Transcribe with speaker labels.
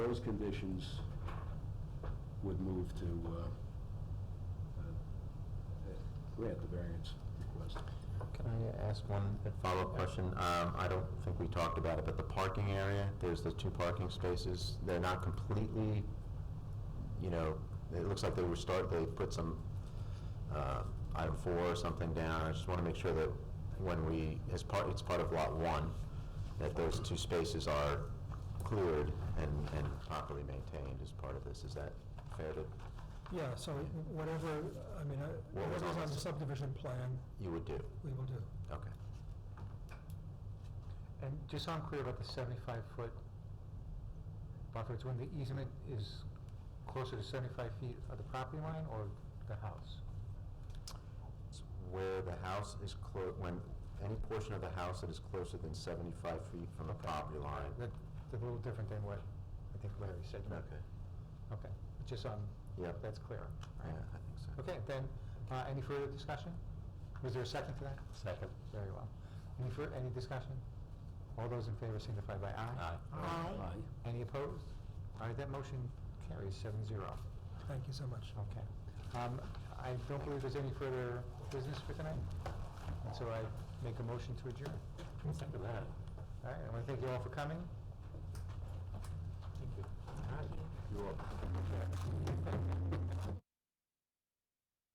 Speaker 1: those conditions would move to uh, uh, grant the variance request.
Speaker 2: Can I ask one follow-up question? Um, I don't think we talked about it, but the parking area, there's the two parking spaces, they're not completely, you know, it looks like they were start, they put some, uh, item four or something down. I just want to make sure that when we, as part, it's part of lot one, that those two spaces are cleared and, and properly maintained as part of this. Is that fair to,
Speaker 3: Yeah, so whatever, I mean, uh,
Speaker 2: What was
Speaker 3: whatever's
Speaker 2: on
Speaker 3: on the
Speaker 2: this?
Speaker 3: subdivision plan,
Speaker 2: you would do?
Speaker 3: we will do.
Speaker 2: Okay.
Speaker 4: And just so I'm clear about the 75-foot buffer, it's when the easement is closer to 75 feet of the property line or the house?
Speaker 2: It's Where the house is clo, when, any portion of the house that is closer than 75 feet from the property line.
Speaker 4: That- That's a little different than what I think Larry said. right? Okay, just so I'm-
Speaker 2: Yeah.
Speaker 4: that's clear.
Speaker 2: Yeah, I think so.
Speaker 4: Okay, then, uh, any further discussion? Was there a second to that?
Speaker 2: Second.
Speaker 4: Very well. Any fur, any discussion? All those in favor signify by aye.
Speaker 1: Aye.
Speaker 4: Any opposed? All right, that motion carries seven zero.
Speaker 3: Thank you so much.
Speaker 4: Okay. Um, I don't believe there's any further business for tonight, and so I make a motion to adjourn. Second that. All right, I want to thank you all for coming. Thank you. All right.
Speaker 1: You're up.